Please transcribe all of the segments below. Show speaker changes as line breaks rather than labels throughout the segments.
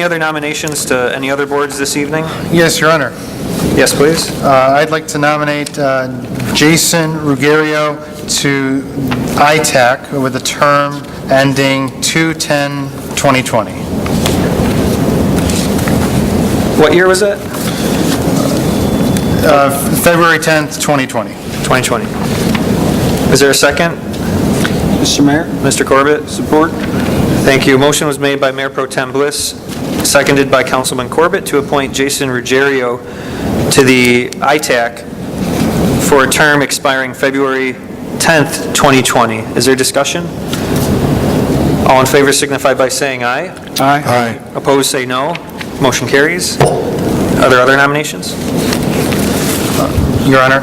Any other nominations to any other boards this evening?
Yes, Your Honor.
Yes, please.
Uh, I'd like to nominate uh, Jason Ruggiero to ITAC with a term ending 2/10/2020.
What year was it?
February 10th, 2020.
2020. Is there a second?
Mr. Mayor,
Mr. Corbett?
support.
Thank you. Motion was made by Mayor Pro Tem Bliss, seconded by Councilman Corbett to appoint Jason Ruggiero to the ITAC for a term expiring February 10th, 2020. Is there discussion? All in favor signify by saying aye.
Aye.
Opposed, say no. Motion carries. Are there other nominations?
Your Honor,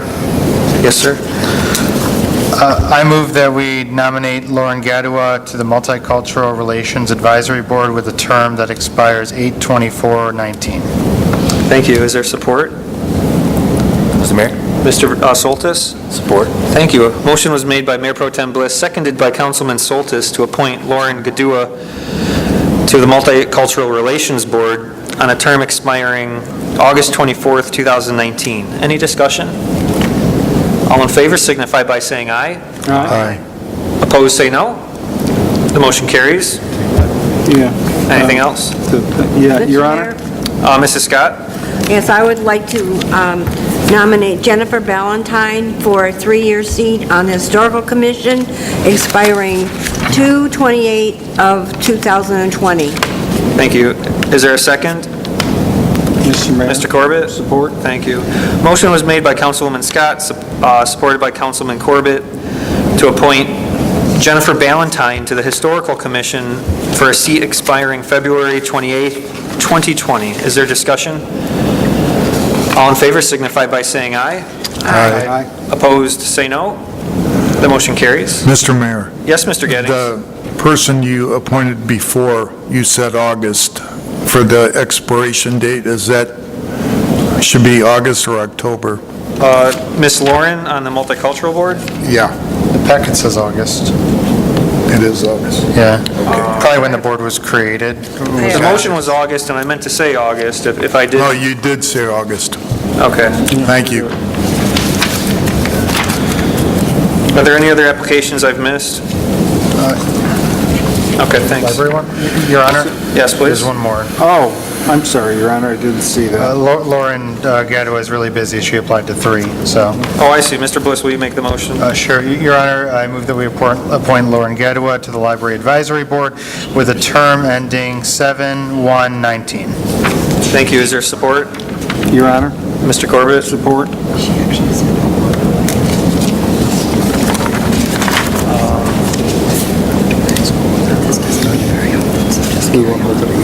Yes, sir.
uh, I move that we nominate Lauren Gadua to the Multicultural Relations Advisory Board with a term that expires 8/24/19.
Thank you. Is there support?
Mr. Mayor?
Mr. uh, Soltis?
Support.
Thank you. A Motion was made by Mayor Pro Tem Bliss, seconded by Councilman Soltis to appoint Lauren Gadua to the Multicultural Relations Board on a term expiring August 24th, 2019. Any discussion? All in favor signify by saying aye.
Aye.
Opposed, say no. The motion carries.
Yeah.
Anything
Um,
else?
else? Yeah,
Mr.
Your Honor.
Mayor?
Uh, Mrs. Scott?
Yes, I would like to um, nominate Jennifer Ballantyne for a three-year seat on the Historical Commission, expiring 2/28 of 2020.
Thank you. Is there a second?
Mr. Mayor.
Mr. Corbett?
Support.
Thank you. Motion was made by Councilwoman Scott, sup- uh, supported by Councilman Corbett, to appoint Jennifer Ballantyne to the Historical Commission for a seat expiring February 28, 2020. Is there discussion? All in favor signify by saying aye.
Aye.
Opposed, say no. The motion carries.
Mr. Mayor,
Yes, Mr. Gettings?
the person you appointed before, you said August for the expiration date, is that, should be August or October?
Uh, Ms. Lauren on the Multicultural Board?
Yeah,
The packet says August.
it is August.
Yeah. Probably when the board was created.
The motion was August, and I meant to say August, if if I did.
Oh,
No, Oh, you did say August.
Okay.
Thank you.
Are there any other applications I've missed? Okay, thanks.
Uh, Library one? Your Honor?
Yes, please.
There's one more.
Oh, I'm sorry, Your Honor, I didn't see
Uh,
that.
Lau- Lauren uh, Gadua is really busy. She applied to three, so.
Oh, I see. Mr. Bliss, will you make the motion?
Uh, Sure. Y- Your Honor, I move that we appoint appoint Lauren Gadua to the Library Advisory Board with a term ending 7/1/19.
Thank you. Is there support?
Your Honor,
Mr. Corbett?
support.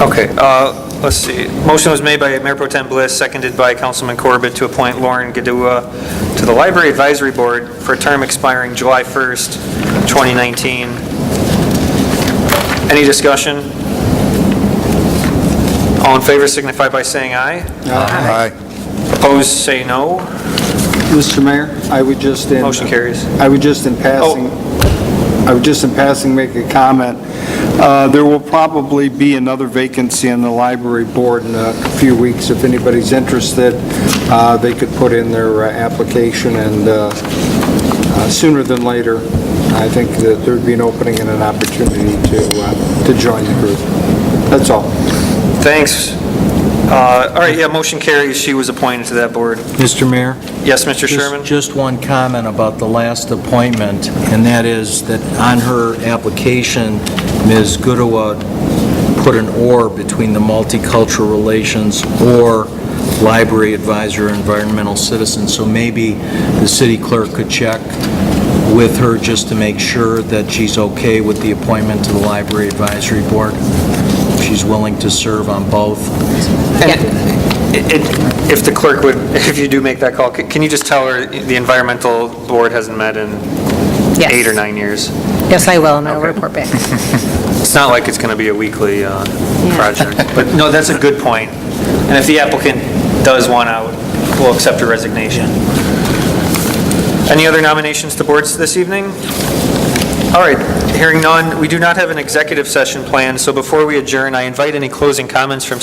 Okay, uh, let's see. Motion was made by Mayor Pro Tem Bliss, seconded by Councilman Corbett to appoint Lauren Gadua to the Library Advisory Board for a term expiring July 1st, 2019. Any discussion? All in favor signify by saying aye.
Uh,
Aye.
Opposed, say no.
Mr. Mayor, I would just in...
Motion carries.
I would just in passing, I would just in passing make a comment. Uh, There will probably be another vacancy on the library board in a few weeks. If anybody's interested, uh, they could put in their uh, application, and uh, uh, sooner than later, I think that there'd be an opening and an opportunity to, uh, to join the group. That's all.
Thanks. Uh, All right, yeah, motion carries. She was appointed to that board.
Mr. Mayor?
Yes, Mr.
just-
Sherman?
Just one comment about the last appointment, and that is that on her application, Ms. Goodowa put an "or" between the multicultural relations or library advisor, environmental citizen, so maybe the city clerk could check with her just to make sure that she's okay with the appointment to the library advisory board, if she's willing to serve on both.
It- it- If the clerk would, if you do make that call, c- can you just tell her the environmental board hasn't met in
Yes.
eight or nine years?
Yes, I will, and I'll report back.
It's not like it's going to be a weekly uh, project. But no, that's a good point. And if the applicant does want out, we'll accept her resignation. Any other nominations to boards this evening? All right, hearing none, we do not have an executive session planned, so before we adjourn, I invite any closing comments from